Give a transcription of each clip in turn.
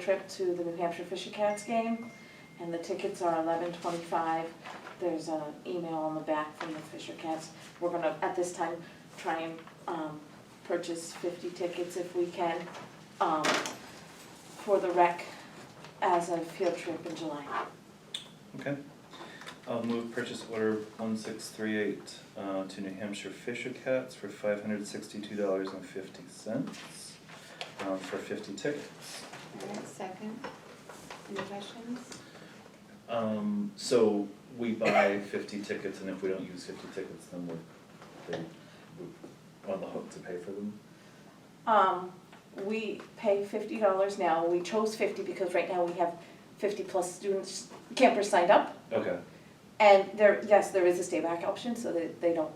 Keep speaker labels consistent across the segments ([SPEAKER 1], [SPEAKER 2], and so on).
[SPEAKER 1] trip to the New Hampshire Fisher Cats game, and the tickets are eleven twenty-five. There's an email on the back from the Fisher Cats. We're gonna, at this time, try and, um, purchase fifty tickets if we can, um, for the rec as a field trip in July.
[SPEAKER 2] Okay. I'll move purchase order one six three eight, uh, to New Hampshire Fisher Cats for five hundred sixty-two dollars and fifty cents, um, for fifty tickets.
[SPEAKER 3] Alright, second. Any questions?
[SPEAKER 2] Um, so we buy fifty tickets and if we don't use fifty tickets, then we're, they, we're on the hook to pay for them.
[SPEAKER 1] Um, we pay fifty dollars now. We chose fifty because right now we have fifty-plus students, campers signed up.
[SPEAKER 2] Okay,
[SPEAKER 1] And there, yes, there is a stay back option so that they don't,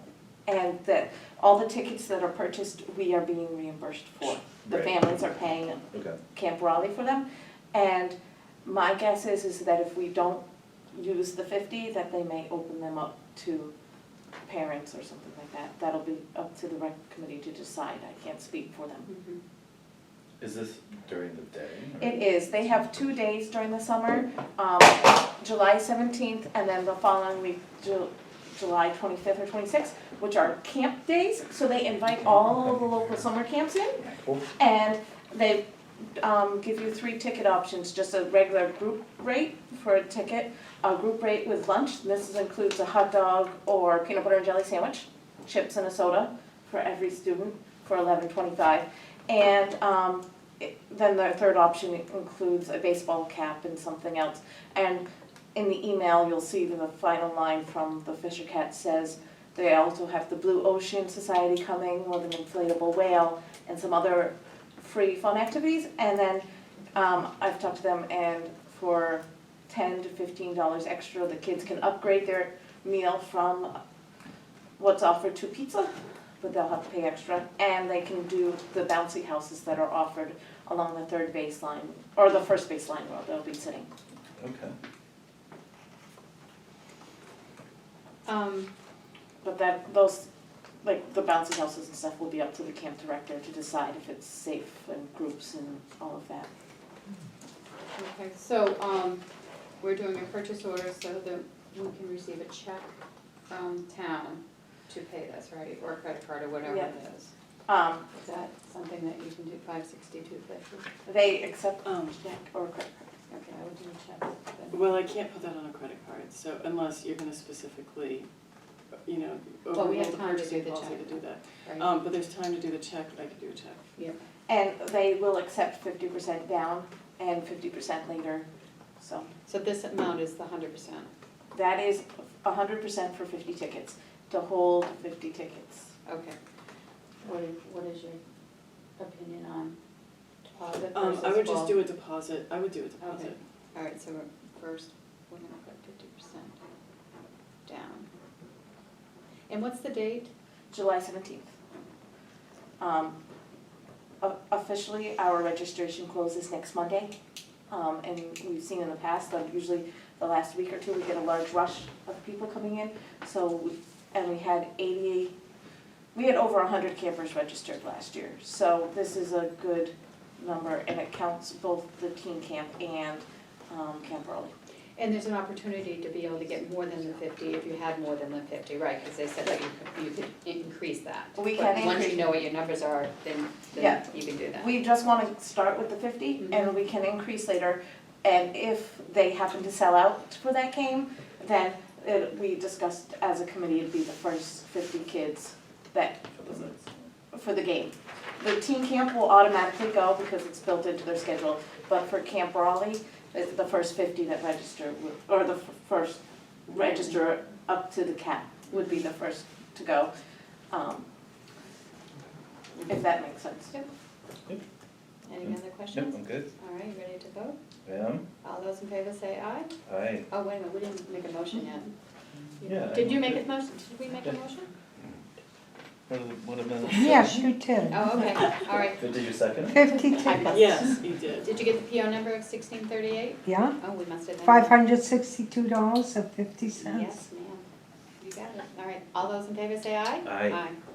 [SPEAKER 1] and that all the tickets that are purchased, we are being reimbursed for. The
[SPEAKER 2] Right.
[SPEAKER 1] families are paying
[SPEAKER 2] okay,
[SPEAKER 1] Camp Raleigh for them. And my guess is, is that if we don't use the fifty, that they may open them up to parents or something like that. That'll be up to the rec committee to decide. I can't speak for them.
[SPEAKER 4] Mm-hmm.
[SPEAKER 2] is this during the day? or-
[SPEAKER 1] It is, they have two days during the summer, um, July seventeenth and then the following week, Ju- July twenty-fifth or twenty-sixth, which are camp days, so they invite all of the local summer camps in,
[SPEAKER 2] Cool,
[SPEAKER 1] and they, um, give you three ticket options, just a regular group rate for a ticket, a group rate with lunch, this is- includes a hot dog or peanut butter and jelly sandwich, chips and a soda for every student for eleven twenty-five. And, um, it- then the third option includes a baseball cap and something else. And in the email, you'll see that the final line from the Fisher Cat says, they also have the Blue Ocean Society coming with an inflatable whale and some other free fun activities. And then um, I've talked to them and for ten to fifteen dollars extra, the kids can upgrade their meal from what's offered to pizza, but they'll have to pay extra. And they can do the bouncy houses that are offered along the third baseline, or the first baseline where they'll be sitting.
[SPEAKER 2] okay.
[SPEAKER 3] Um,
[SPEAKER 1] But that, those, like, the bouncy houses and stuff will be up to the camp director to decide if it's safe and groups and all of that.
[SPEAKER 3] okay, so, um, we're doing a purchase order so that we can receive a check from town to pay this, right? Or a credit card or whatever it
[SPEAKER 1] Yeah.
[SPEAKER 3] is.
[SPEAKER 1] Um,
[SPEAKER 3] Is that something that you can do, five sixty-two fifty?
[SPEAKER 1] they accept
[SPEAKER 4] Um,
[SPEAKER 1] check or credit card.
[SPEAKER 3] Okay, I would do a check then.
[SPEAKER 4] well, I can't put that on a credit card, so unless you're gonna specifically, you know,
[SPEAKER 3] Well, we have
[SPEAKER 4] overrule the
[SPEAKER 3] time to do
[SPEAKER 4] purchasing
[SPEAKER 3] the
[SPEAKER 4] policy to
[SPEAKER 3] check.
[SPEAKER 4] do that.
[SPEAKER 3] Right.
[SPEAKER 4] Um, but there's time to do the check, I could do a check.
[SPEAKER 1] And they will accept fifty percent down and fifty percent later, so
[SPEAKER 3] So this amount is the hundred percent,
[SPEAKER 1] that is hundred percent for fifty tickets, to hold fifty tickets.
[SPEAKER 3] okay. What is, what is your opinion on deposit
[SPEAKER 4] Um, I would just do a deposit, I would do a
[SPEAKER 3] Okay,
[SPEAKER 4] deposit.
[SPEAKER 3] all right, so we're- first, we're gonna put fifty percent down. And what's the date?
[SPEAKER 1] July seventeenth. Um, o- officially, our registration closes next Monday. Um, and we've seen in the past, like usually the last week or two, we get a large rush of people coming in. So, we- and we had eighty, we had over hundred campers registered last year. So this is a good number and it counts both the teen camp and, um, Camp Raleigh.
[SPEAKER 3] And there's an opportunity to be able to get more than the fifty if you had more than the fifty, right? Because they said that you could, you could increase that.
[SPEAKER 1] We can
[SPEAKER 3] But Once
[SPEAKER 1] increase-
[SPEAKER 3] you know what your numbers are, then, then
[SPEAKER 1] Yeah.
[SPEAKER 3] you can do that.
[SPEAKER 1] We just wanna start with the fifty and we can increase later. And if they happen to sell out for that game, then it, we discussed as a committee, it'd be the first fifty kids that,
[SPEAKER 2] For the next one.
[SPEAKER 1] for the game. The teen camp will automatically go because it's built into their schedule, but for Camp Raleigh, it's the first fifty that register, would- or the f- first register up to the cap would be the first to go. Um, If that makes sense.
[SPEAKER 3] Any other
[SPEAKER 2] Yep,
[SPEAKER 3] questions?
[SPEAKER 2] I'm good,
[SPEAKER 3] All right, you ready to vote?
[SPEAKER 2] ma'am,
[SPEAKER 3] All those in favor say aye.
[SPEAKER 2] aye.
[SPEAKER 3] Oh, wait a minute, we didn't make a motion yet.
[SPEAKER 2] Yeah, I
[SPEAKER 3] Did you
[SPEAKER 2] moved
[SPEAKER 3] make
[SPEAKER 2] it.
[SPEAKER 3] a motion? Did we make a
[SPEAKER 2] Yeah.
[SPEAKER 3] motion?
[SPEAKER 2] What a, what a minute.
[SPEAKER 5] Yes, you did.
[SPEAKER 3] Oh, okay, all right.
[SPEAKER 2] Did you second?
[SPEAKER 5] Fifty
[SPEAKER 3] I
[SPEAKER 5] tickets,
[SPEAKER 3] must-
[SPEAKER 4] Yes, you did.
[SPEAKER 3] Did you get the PO number of sixteen thirty-eight?
[SPEAKER 5] yeah,
[SPEAKER 3] Oh, we must have been.
[SPEAKER 5] five hundred sixty-two dollars and fifty cents.
[SPEAKER 3] Yes, ma'am. You got it. All right, all those in favor say aye?
[SPEAKER 2] Aye.
[SPEAKER 3] Aye.